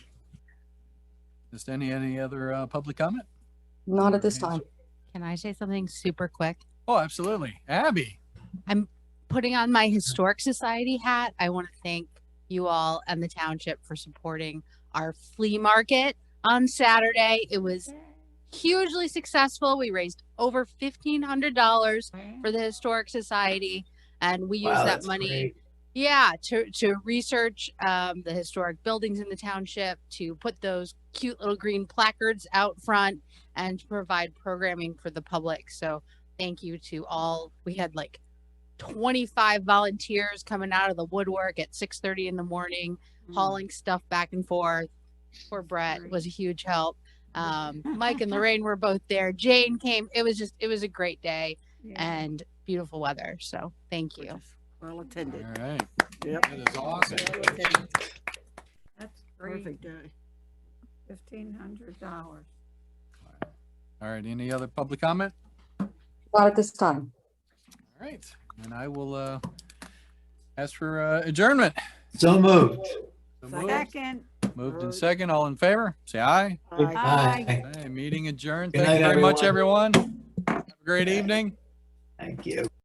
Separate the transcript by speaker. Speaker 1: Just any, any other uh, public comment?
Speaker 2: Not at this time.
Speaker 3: Can I say something super quick?
Speaker 1: Oh, absolutely. Abby,
Speaker 3: Putting on my Historic Society hat, I want to thank you all and the township for supporting our flea market on Saturday. It was hugely successful. We raised over $1,500 for the Historic Society, and we used that money. Yeah, to to research um, the historic buildings in the township, to put those cute little green placards out front, and to provide programming for the public. So thank you to all. We had like 25 volunteers coming out of the woodwork at 6:30 in the morning, hauling stuff back and forth. Poor Brett was a huge help. Um, Mike and Lorraine were both there. Jane came. It was just it was a great day and beautiful weather. So thank you.
Speaker 4: Well
Speaker 1: all
Speaker 4: attended.
Speaker 1: right.
Speaker 4: Yep.
Speaker 1: That is awesome.
Speaker 5: That's great,
Speaker 4: Perfect day.
Speaker 5: fifteen hundred dollars.
Speaker 1: All right, any other public comment?
Speaker 2: Not at this time.
Speaker 1: All right, and I will uh, ask for uh, adjournment.
Speaker 6: So moved.
Speaker 1: So Moved
Speaker 5: Second.
Speaker 1: Moved and second, all in favor, say aye.
Speaker 4: Bye.
Speaker 5: Aye.
Speaker 1: Aye, meeting adjourned.
Speaker 6: Good
Speaker 1: Thank you
Speaker 6: night,
Speaker 1: very much, everyone. Have a great evening.
Speaker 6: Thank you.